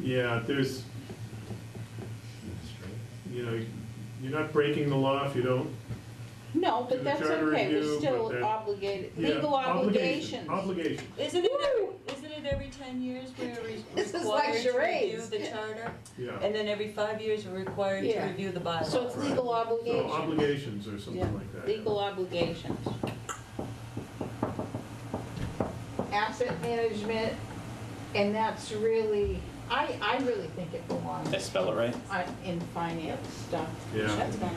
Yeah, there's, you know, you're not breaking the law if you don't. No, To but the that's charter okay, review, we're but that- still obligated, yeah, legal obligations. obligation, Obligation. Isn't it, every- isn't it every ten years we're re- This is required like to review charades. the charter? yeah. And then every five years we're required to Yeah. review the bylaws? So it's Right. legal So obligation, obligations or Yeah, something like that. yeah. legal obligations. asset management, and that's really, I, I really think it belongs Did I spell it right? on- in finance stuff, Yeah, That's fine.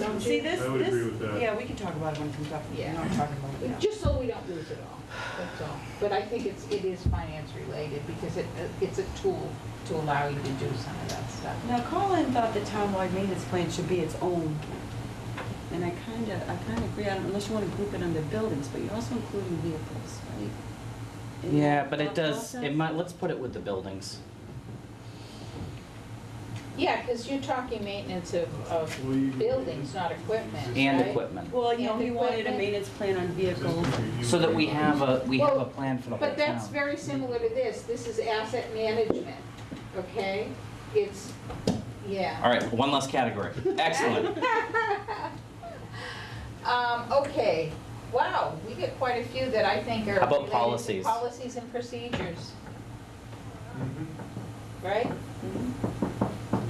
don't See, you? this, I would agree this, with that. yeah, we can talk about it when it comes up. Yeah. I'm talking about it now. Just so we don't lose it all, that's all. But I think it's, it is finance related, because it, it's a tool to allow you to do some of that stuff. Now, Colin thought the townwide maintenance plan should be its own, and I kind of, I kind of agree, I don't- unless you want to group it under buildings, but you're also including vehicles, right? In Yeah, that but it thought does, process? it might, let's put it with the buildings. Yeah, because you're talking maintenance of, of Well, you- buildings, not equipment, right? And equipment, Well, you know, And he wanted a equipment. maintenance plan on vehicles. Just review so that we everybody's- have a, we have a Well, plan for the whole But that's town. very similar to this, this is asset management, okay? It's, yeah. All right, one less category. Excellent. Um, okay, wow, we get quite a few that I think are. How about related to policies? Policies and procedures, Mhm. right?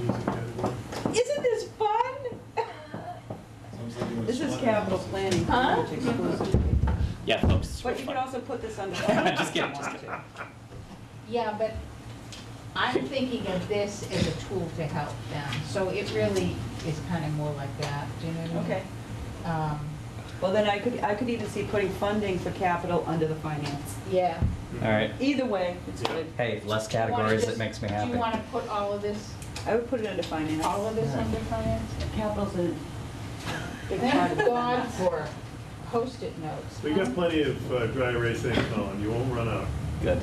Needs a category. Isn't this fun? This is capital planning, pretty Huh? much exclusively. Yeah, folks. it's But real you could fun. also put this under. Just kidding, just kidding. Yeah, but I'm thinking of this as a tool to help them, so it really is kind of more like that, do you know what I mean? Okay, Um, well, then I could, I could even see putting funding for capital under the finance. yeah. All right, Either way, it's Yeah. good. hey, less Wanna categories, it just- makes me Do happy. you want to put all of this, I would put it under finance. all of this under finance? Capital's a big part Thank of it. God for post-it notes. We got plenty of uh, dry erasing, Colin, you won't run out. Good.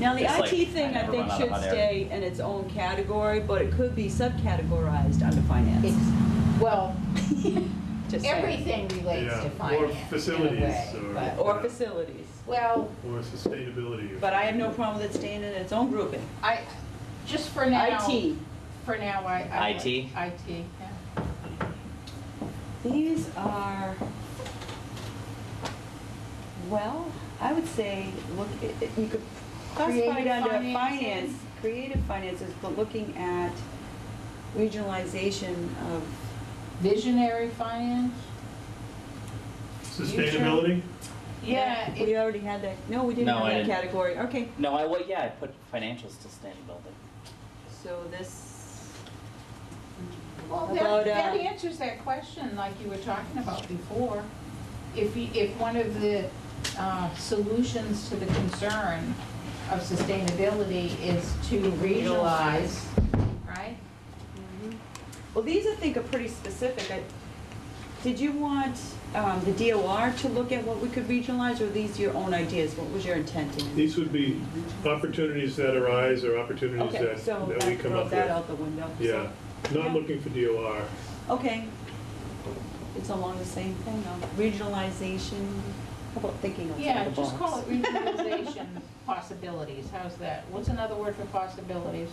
Now, the It's like, IT thing, I I never think, run out of should money. stay in its own category, but it could be subcategorized under finance. It's- Well, Just saying. everything relates Yeah, to or finance in facilities, a way, or- but- Or facilities, Well, Or sustainability. but I have no problem with it staying in its own grouping. I, just for now. IT. For now, I. I like IT? IT, yeah. These are, well, I would say, look, i- i- you could classify it Creative under finances. finance, creative finances, but looking at regionalization of, Visionary finance? Sustainability? Yeah, it- we already had that, no, we didn't No, have I that didn't. category, okay. No, I, well, yeah, I put financial sustainability. So this, Well, About, that, that uh, answers that question like you were talking about before. If, you- if one of the uh, solutions to the concern of sustainability is to regionalize, right? Mm-hmm. well, these I think are pretty specific. I- Did you want um, the DOR to look at what we could regionalize, or these your own ideas? What was your intent in? it? These would be opportunities that arise or opportunities Okay, that, so that we that come up throws that with. out the window. so- Yeah, Yeah. not looking for DOR. Okay. It's along the same thing, though. Regionalization, how about thinking outside the Yeah, box? just call it regionalization possibilities, how's that? What's another word for possibilities?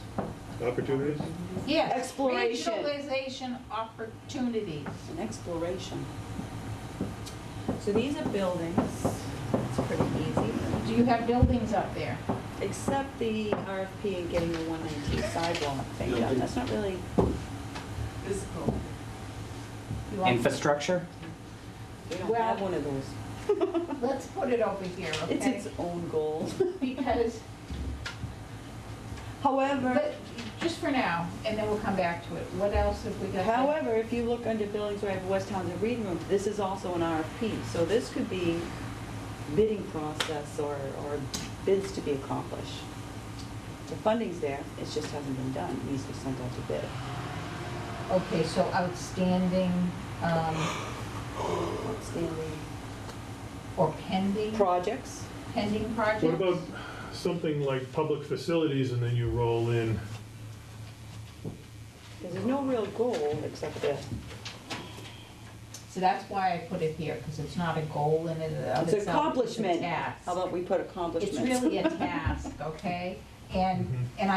Opportunities? Yes. Exploration. Regionalization opportunities. An exploration. So these are buildings. It's pretty easy. Do you have buildings up there? Except the RFP and getting the 119 sidewalk thing done, that's not really physical. You want- Infrastructure? We don't have one of those. Let's put it over here, It's okay? its own goal. Because However, But just for now, and then we'll come back to it. What else have we got? however, if you look under buildings right of West Towns and Reading Room, this is also an RFP. So this could be bidding process or, or bids to be accomplished. The funding's there, it just hasn't been done, It needs to be sent out to bid. Okay, so outstanding um, Outstanding or pending, projects. pending projects? What about something like public facilities and then you roll in? Because there's no real goal except that So that's why I put it here, because it's not a goal in and of itself. it's accomplishment. It's a task. How about we put accomplishments? It's really a task, okay? And, Mhm. and